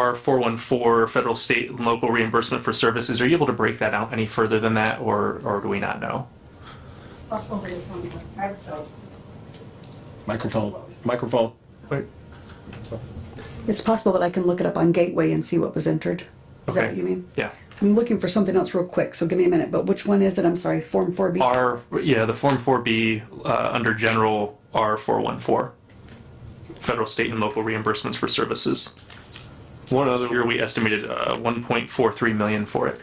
our 414 federal, state, and local reimbursement for services, are you able to break that out any further than that, or, or do we not know? Probably it's on the website. Microphone, microphone. It's possible that I can look it up on Gateway and see what was entered. Is that Okay. what you mean? Yeah. I'm looking for something else real quick, so give me a minute, but which one is it? I'm sorry, Form 4B? Our, yeah, the Form 4B, uh, under general, R414, federal, state, and local reimbursements for services. One other, Here, we estimated, uh, 1.43 million for it.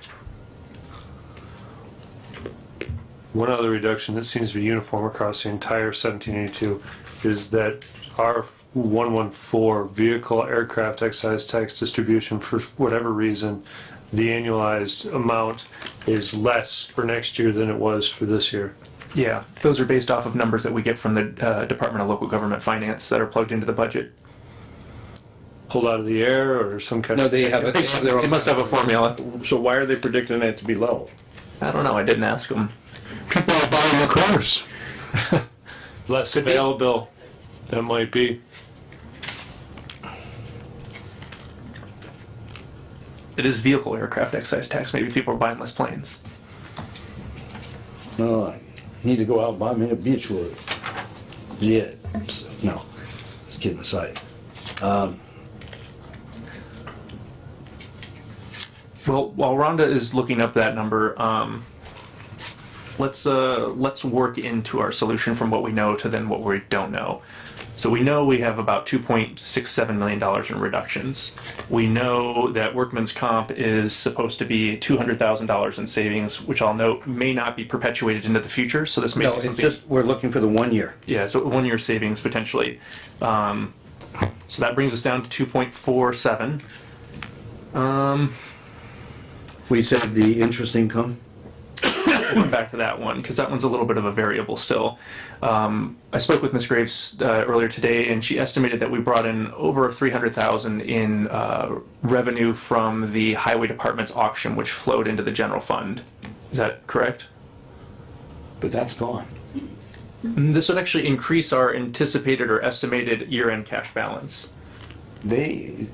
one other reduction that seems to be uniform across the entire seventeen eighty-two is that our one one four vehicle aircraft excise tax distribution, for whatever reason, the annualized amount is less for next year than it was for this year. Yeah, those are based off of numbers that we get from the uh, Department of Local Government Finance that are plugged into the budget. Pulled out of the air or some kind of. No, they have, a- they have their They own. must have a formula. So why are they predicting that to be low? I don't know, I didn't ask them. People are buying their cars. Less available, that might be. It is vehicle aircraft excise tax, maybe people are buying less planes. No, I need to go out and buy me a beach wood. Yeah, so, no, just kidding aside. Well, while Rhonda is looking up that number, um, let's uh, let's work into our solution from what we know to then what we don't know. So we know we have about 2.67 million dollars in reductions. We know that workman's comp is supposed to be 200 thousand dollars in savings, which I'll note may not be perpetuated into the future. So this may No, be it's something. just, we're looking for the one year. Yeah, so one year savings potentially. Um, so that brings us down to 2.47. We said the interest income, come back to that one because that one's a little bit of a variable still. Um, I spoke with Ms. Graves uh, earlier today, and she estimated that we brought in over 300,000 in uh, revenue from the highway department's auction, which flowed into the general fund. Is that correct? but that's gone. And Mm, this would actually increase our anticipated or estimated year-end cash balance. They,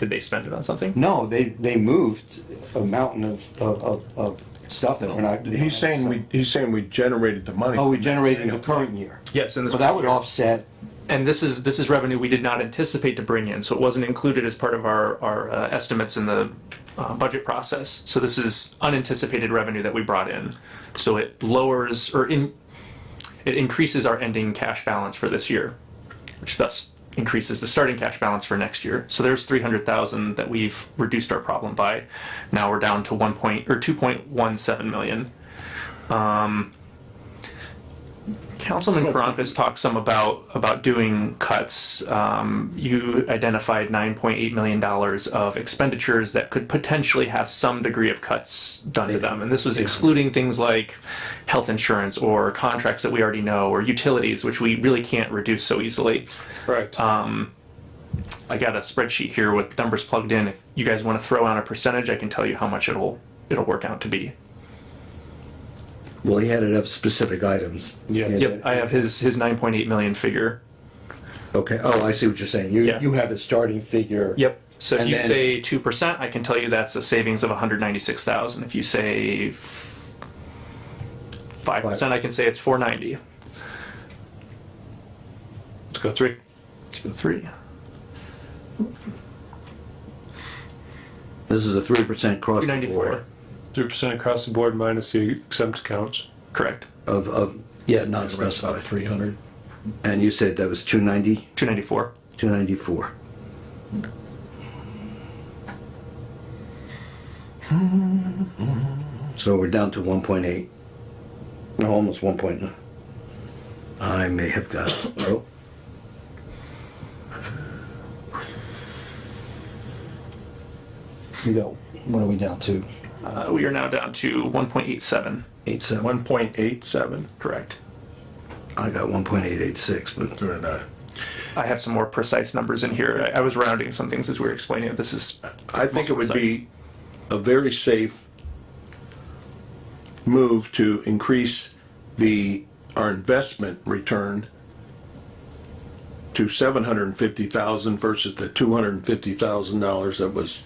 Did they spend it on something? no, they, they moved a mountain of, of, of, of stuff that we're not. He's saying we, he's saying we generated the money. Oh, we generated in the current year. Yes, in this So that would offset, And this is, this is revenue we did not anticipate to bring in, so it wasn't included as part of our, our uh, estimates in the uh, budget process. So this is unanticipated revenue that we brought in. So it lowers, or in, it increases our ending cash balance for this year, which thus increases the starting cash balance for next year. So there's three hundred thousand that we've reduced our problem by. Now we're down to one point, or two point one seven million. Councilman Karampas talked some about, about doing cuts. Um, you identified nine point eight million dollars of expenditures that could potentially have some degree of cuts done to them. And this was excluding things like health insurance or contracts that we already know, or utilities, which we really can't reduce so easily. Correct. Uh, I got a spreadsheet here with numbers plugged in. If you guys want to throw out a percentage, I can tell you how much it'll, it'll work out to be. well, he had enough specific items. Yeah. Yep, I have his, his nine point eight million figure. Okay, oh, I see what you're saying. You, Yeah. you have a starting figure. Yep. So if And you then- say two percent, I can tell you that's a savings of one hundred ninety-six thousand. If you say five percent, I can say it's four ninety. Let's go three. Three. This is a three percent cross Two the board ninety-four. Three percent across the board minus the exempt accounts. Correct. of, of, yeah, not specified. Three hundred. And you said that was two ninety, Two ninety-four. two ninety-four. So we're down to one point eight, no, almost one point nine. I may have got, oh, you go, what are we down to? Uh, we are now down to one point eight seven. Eight seven. One point eight seven. Correct. I got one point eight eight six, but Or not. I have some more precise numbers in here. I, I was rounding some things as we were explaining it. This is I think it would be a very safe move to increase the, our investment return to seven hundred and fifty thousand versus the two hundred and fifty thousand dollars that was